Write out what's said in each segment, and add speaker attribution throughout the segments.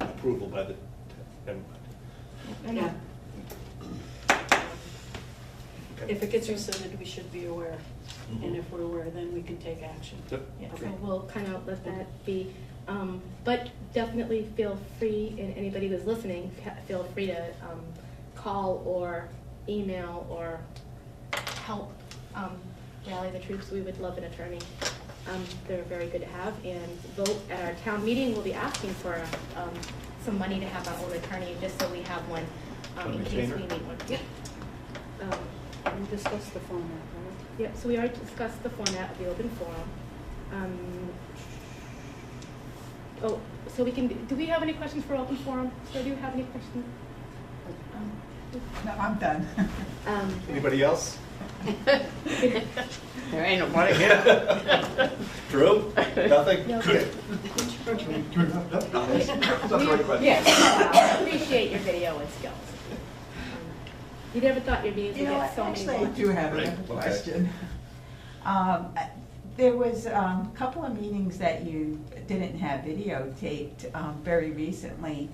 Speaker 1: approval by the, never mind.
Speaker 2: I know.
Speaker 1: Okay. Mm-hmm.
Speaker 2: If it gets rescinded, we should be aware, and if we're aware, then we can take action.
Speaker 1: Yep.
Speaker 2: Yeah.
Speaker 1: Okay.
Speaker 3: So we'll kind of let that be. Um, But definitely feel free, and anybody who's listening, ca- feel free to um, call or email or help um, rally the troops. We would love an attorney. Um, They're very good to have. And vote at our town meeting, we'll be asking for um, some money to have our own attorney, just so we have one um, in case
Speaker 1: Retainer?
Speaker 3: we need one.
Speaker 2: Yep.
Speaker 3: Um,
Speaker 2: We discussed the format, right?
Speaker 3: Yep, so we already discussed the format of the open forum. Um, Oh, so we can, do we have any questions for open forum? So do you have any questions? Um,
Speaker 4: No, I'm done.
Speaker 3: um,
Speaker 1: Anybody else?
Speaker 5: There ain't nobody here.
Speaker 1: Drew? Nothing?
Speaker 3: No.
Speaker 1: Good.
Speaker 3: Yes, appreciate your video and skills. Um, You never thought your videos
Speaker 4: You
Speaker 3: would
Speaker 4: know,
Speaker 3: get so many
Speaker 4: actually, I
Speaker 3: watches.
Speaker 4: do have
Speaker 1: Right,
Speaker 4: another
Speaker 1: okay.
Speaker 4: question. Um, I- There was um, a couple of meetings that you didn't have videotaped um, very recently.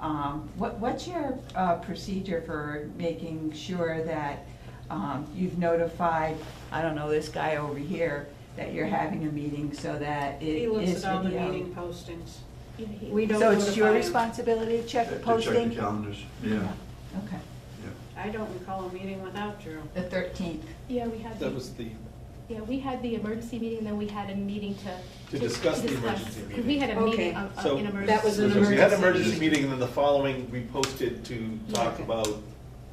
Speaker 4: Um, What, what's your uh, procedure for making sure that um, you've notified, I don't know, this guy over here, that you're having a meeting so that it
Speaker 2: He looks
Speaker 4: is
Speaker 2: at all the
Speaker 4: video?
Speaker 2: meeting postings.
Speaker 3: Yeah, he-
Speaker 2: We don't
Speaker 4: So it's your
Speaker 2: notify him.
Speaker 4: responsibility to check the
Speaker 6: They they check
Speaker 4: posting?
Speaker 6: the calendars, yeah,
Speaker 4: Okay,
Speaker 6: yeah.
Speaker 2: I don't recall a meeting without Drew.
Speaker 4: the thirteenth.
Speaker 3: Yeah, we had,
Speaker 1: That
Speaker 3: the-
Speaker 1: was the,
Speaker 3: yeah, we had the emergency meeting, then we had a meeting to.
Speaker 1: To discuss the emergency
Speaker 3: because
Speaker 1: meeting.
Speaker 3: We had a
Speaker 2: Okay.
Speaker 3: meeting, uh, uh,
Speaker 1: so.
Speaker 3: an emergency.
Speaker 2: That was an
Speaker 1: so We had an
Speaker 2: emergency.
Speaker 1: emergency meeting, and then the following, we posted to talk
Speaker 2: Yeah.
Speaker 1: about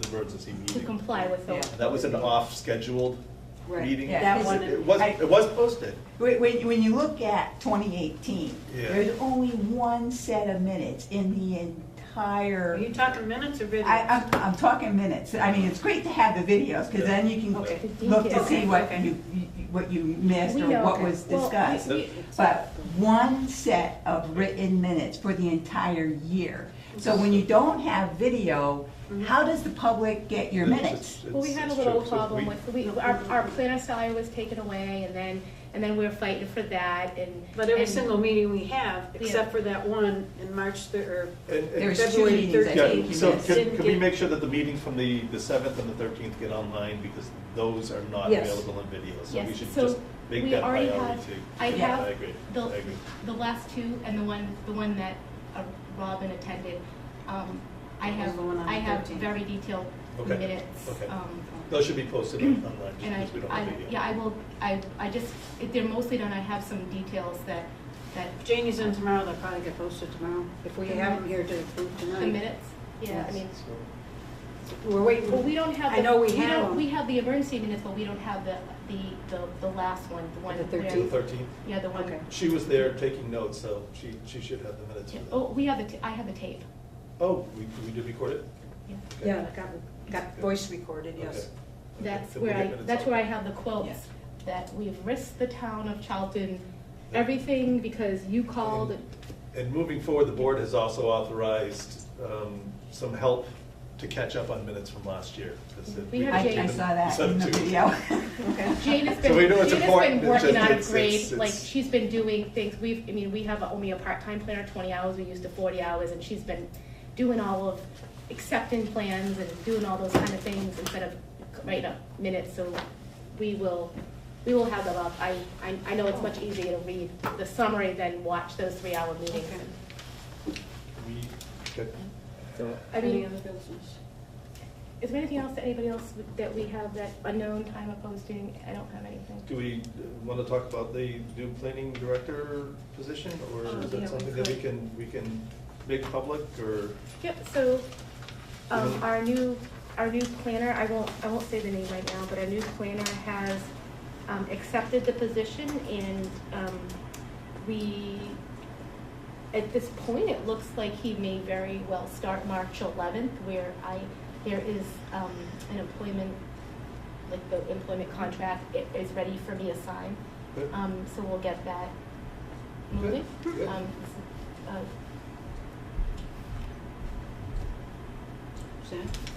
Speaker 1: the emergency meeting.
Speaker 3: To comply with the.
Speaker 4: Yeah.
Speaker 1: That was an off-scheduled
Speaker 2: Right.
Speaker 1: meeting.
Speaker 4: Yeah.
Speaker 2: That
Speaker 4: Is
Speaker 2: one,
Speaker 1: It was, it was posted.
Speaker 4: When, when, when you look at twenty eighteen,
Speaker 1: Yeah.
Speaker 4: there's only one set of minutes in the
Speaker 2: are
Speaker 4: entire,
Speaker 2: you talking minutes or videos?
Speaker 4: I, I'm, I'm talking minutes. I mean, it's great to have the videos, cause then you can
Speaker 2: Okay.
Speaker 4: look to
Speaker 3: Okay,
Speaker 4: see what
Speaker 2: okay.
Speaker 4: you, you- what you missed
Speaker 3: We
Speaker 4: or
Speaker 3: know-
Speaker 4: what was
Speaker 3: well, we-
Speaker 4: discussed.
Speaker 3: we-
Speaker 4: But one set of written minutes for the entire year. So when you don't have video, how does the public get your
Speaker 1: It's just-
Speaker 4: minutes?
Speaker 1: it's-
Speaker 3: Well, we had a
Speaker 1: it's
Speaker 3: little
Speaker 1: true. So
Speaker 3: problem
Speaker 1: we-
Speaker 3: with, we, our, our planner salary was taken away, and then, and then we were fighting for that, and.
Speaker 2: But every
Speaker 3: and-
Speaker 2: single meeting we have,
Speaker 3: Yeah.
Speaker 2: except for that one in March, thir- or
Speaker 1: and- and-
Speaker 4: There's two
Speaker 2: February
Speaker 4: meetings, I think,
Speaker 1: Yeah,
Speaker 4: you
Speaker 2: thirteenth.
Speaker 1: so
Speaker 4: missed.
Speaker 1: can,
Speaker 2: didn't
Speaker 1: can we
Speaker 2: get-
Speaker 1: make sure that the meetings from the, the seventh and the thirteenth get online, because those are not
Speaker 2: Yes.
Speaker 1: available in video, so we
Speaker 3: Yes,
Speaker 1: should just
Speaker 3: so
Speaker 1: make
Speaker 3: we
Speaker 1: that
Speaker 3: already
Speaker 1: priority too.
Speaker 3: have, I
Speaker 1: Yeah,
Speaker 3: have
Speaker 1: I agree, I
Speaker 3: the,
Speaker 1: agree.
Speaker 3: the last two, and the one, the one that uh, Robin attended, um, I
Speaker 2: That was
Speaker 3: have,
Speaker 2: the one on
Speaker 3: I
Speaker 2: the
Speaker 3: have
Speaker 2: 13th.
Speaker 3: very detailed
Speaker 1: Okay,
Speaker 3: minutes,
Speaker 1: okay.
Speaker 3: um,
Speaker 1: Those should be posted on- online, just
Speaker 3: And I,
Speaker 1: because we don't
Speaker 3: I,
Speaker 1: have video.
Speaker 3: yeah, I will, I, I just, if they're mostly done, I have some details that, that,
Speaker 2: If Janie's in tomorrow, they'll probably get posted tomorrow, if we have them here to approve tonight.
Speaker 3: the minutes, yeah, I
Speaker 2: Yes.
Speaker 3: mean.
Speaker 2: We're waiting.
Speaker 3: Well, we don't have.
Speaker 2: I
Speaker 3: the-
Speaker 2: know we have
Speaker 3: don't-
Speaker 2: them.
Speaker 3: We have the emergency minutes, but we don't have the, the, the, the last one, the one.
Speaker 2: The
Speaker 3: where-
Speaker 2: 13th?
Speaker 1: The thirteenth,
Speaker 3: Yeah, the
Speaker 2: Okay.
Speaker 3: one.
Speaker 1: she was there taking notes, so she, she should have the minutes for that.
Speaker 3: Oh, we have the, ta- I have the tape.
Speaker 1: Oh, we, we did record it?
Speaker 3: Yeah.
Speaker 1: Okay.
Speaker 2: Yeah, got, got voice recorded, yes.
Speaker 1: Okay. Okay,
Speaker 3: That's
Speaker 1: so we'll
Speaker 3: where
Speaker 1: get
Speaker 3: I,
Speaker 1: minutes
Speaker 3: that's
Speaker 1: out.
Speaker 3: where I have the quotes,
Speaker 4: Yeah.
Speaker 3: that we've risked the town of Charlton, everything because you called.
Speaker 1: And moving forward, the board has also authorized um, some help to catch up on minutes from last year. 'cause it-
Speaker 3: We have
Speaker 4: I,
Speaker 3: Jane.
Speaker 4: I saw that
Speaker 1: So
Speaker 4: in the
Speaker 1: two.
Speaker 4: video.
Speaker 2: Okay.
Speaker 3: Jane has
Speaker 1: So
Speaker 3: been,
Speaker 1: we
Speaker 3: Jane
Speaker 1: know
Speaker 3: has
Speaker 1: it's important,
Speaker 3: been
Speaker 1: it's just-
Speaker 3: working out of
Speaker 1: it's- it's-
Speaker 3: grade, like,
Speaker 1: it's-
Speaker 3: she's been doing things, we've, I mean, we have only a part-time planner, twenty hours, we used to forty hours, and she's been doing all of accepting plans and doing all those kind of things instead of writing up minutes, so we will, we will have them up, I, I, I know it's much easier to read the summary than watch those three-hour meetings.
Speaker 2: Okay.
Speaker 1: We, okay.
Speaker 3: So, I
Speaker 2: Any
Speaker 3: mean,
Speaker 2: other business?
Speaker 3: is there anything else that anybody else that we have that unknown time of posting, I don't have anything.
Speaker 1: do we want to talk about the new planning director position? Or
Speaker 2: Oh,
Speaker 1: is
Speaker 2: yeah, we
Speaker 1: that something that we
Speaker 2: could.
Speaker 1: can, we can make public or?
Speaker 3: Yep, so, um, our new, our new planner, I won't, I won't say the name right now, but our new planner has, um, accepted the position and, um, we, at this point, it looks like he may very well start March eleventh, where I, there is, um, an employment, like the employment contract i- is ready for me to sign.
Speaker 1: Good.
Speaker 3: Um, so we'll get that moving.
Speaker 1: Good, good.
Speaker 3: Um, uh,
Speaker 2: Suzanne?